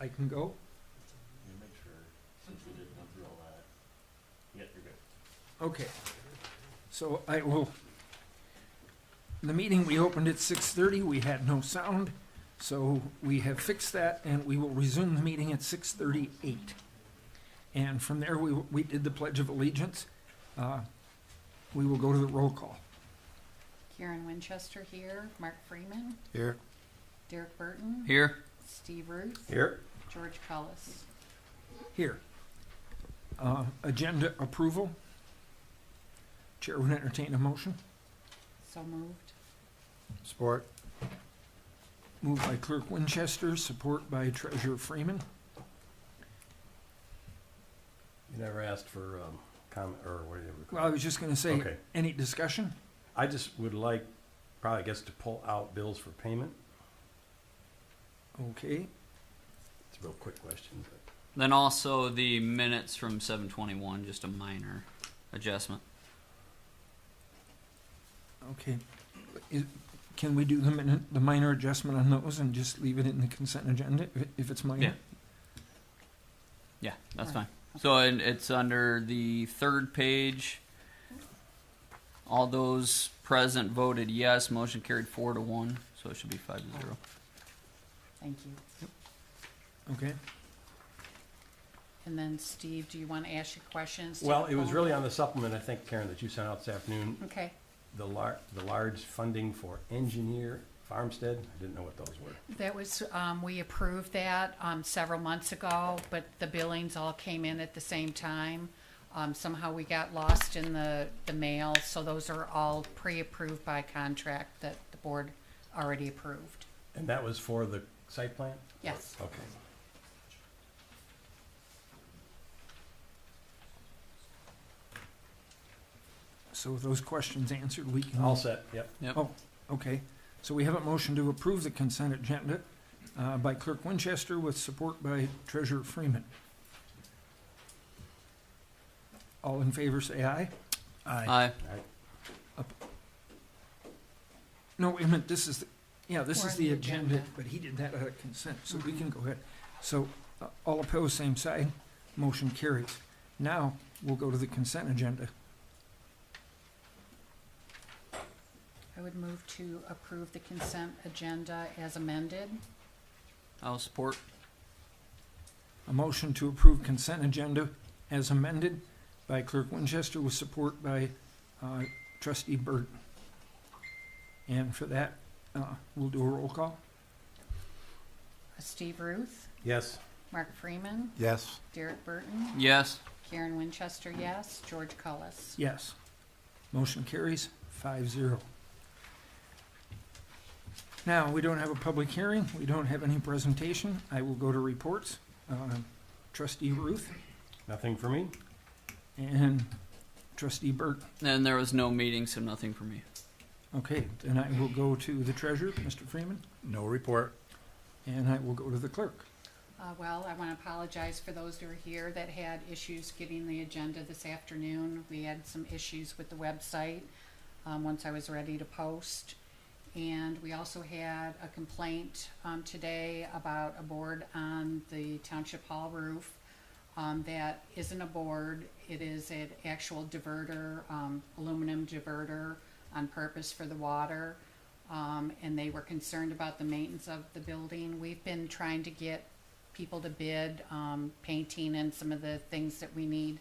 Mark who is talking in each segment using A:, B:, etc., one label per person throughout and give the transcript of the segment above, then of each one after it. A: I can go.
B: You make sure, since we didn't go through all that. Yep, you're good.
A: Okay, so I will, the meeting, we opened at six thirty, we had no sound, so we have fixed that, and we will resume the meeting at six thirty-eight. And from there, we, we did the Pledge of Allegiance, uh, we will go to the roll call.
C: Karen Winchester here, Mark Freeman,
D: Here.
C: Derek Burton,
E: Here.
C: Steve Ruth,
D: Here.
C: George Cullis.
A: Here. Uh, Agenda approval. Chair would entertain a motion,
C: So moved.
D: Support.
A: moved by Clerk Winchester, support by Treasurer Freeman.
B: You never asked for, um, comment, or what do you?
A: Well, I was just gonna say,
B: Okay.
A: any discussion?
B: I just would like, probably, I guess, to pull out bills for payment.
A: Okay,
B: It's a real quick question, but.
E: Then also the minutes from 721, just a minor adjustment.
A: okay. Is- Can we do the min- the minor adjustment on those and just leave it in the consent agenda if- if it's minor?
E: Yeah, that's
C: Right.
E: fine. So and it's under the third page. All those present voted yes. Motion carried four to one, so it should be five to zero.
C: Thank you.
A: Okay,
C: And then Steve, do you want to ask your questions? to
B: Well,
C: the
B: it was
C: phone?
B: really on the supplement, I think, Karen, that you sent out this afternoon,
C: Okay.
B: the lar- the large funding for engineer farmstead. I didn't know what those were.
C: That was, um, we approved that, um, several months ago, but the billings all came in at the same time. Um, somehow we got lost in the, the mail, so those are all pre-approved by contract that the board already approved.
B: And that was for the site plan?
C: Yes.
B: Okay.
A: so with those questions answered, we can.
B: All set, yep.
E: Yep.
A: Oh, okay, so we have a motion to approve the consent agenda uh, by Clerk Winchester with support by Treasurer Freeman. All in favor, say aye.
E: Aye.
A: No, wait a minute, this is, the- yeah, this
C: We're
A: is
C: on
A: the
C: the
A: agenda,
C: agenda.
A: but he did that out of consent, so we
C: Mhm.
A: can go ahead. So, uh, all opposed, same side, motion carries. Now, we'll go to the consent agenda.
C: I would move to approve the consent agenda as amended.
E: I'll support.
A: A motion to approve consent agenda as amended by Clerk Winchester with support by uh, trustee Burton. And for that, uh, we'll do a roll call.
C: Steve Ruth,
B: Yes.
C: Mark Freeman,
D: Yes.
C: Derek Burton,
E: Yes.
C: Karen Winchester, yes, George Cullis.
A: Yes. Motion carries five zero. Now, we don't have a public hearing, we don't have any presentation, I will go to reports. Um, Trustee Ruth
B: Nothing for me?
A: and trustee Burt.
E: And there was no meeting, so nothing for me.
A: Okay, then I will go to the treasurer, Mr. Freeman,
D: No report.
A: and I will go to the clerk.
C: Uh, well, I want to apologize for those who are here that had issues getting the agenda this afternoon. We had some issues with the website, um, once I was ready to post. And we also had a complaint, um, today about a board on the Township Hall roof. Um, that isn't a board, it is an actual diverter, um, aluminum diverter on purpose for the water. Um, and they were concerned about the maintenance of the building. We've been trying to get people to bid, um, painting and some of the things that we need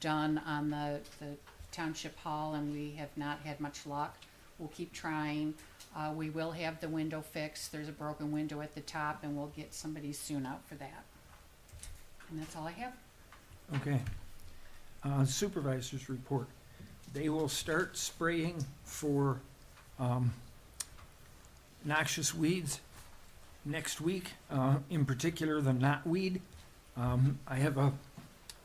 C: done on the, the township hall and we have not had much luck. We'll keep trying. Uh, we will have the window fixed. There's a broken window at the top and we'll get somebody soon out for that. And that's all I have.
A: Okay. Uh, Supervisors report. They will start spraying for um, noxious weeds next week, uh, in particular the knotweed. Um, I have a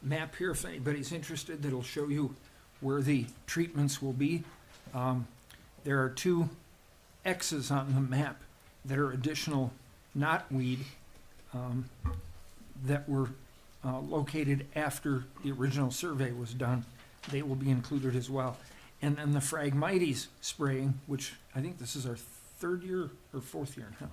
A: map here if anybody's interested that'll show you where the treatments will be. Um, There are two X's on the map that are additional knotweed um, that were uh, located after the original survey was done, they will be included as well. And then the Phragmites spraying, which I think this is our third year or fourth year now.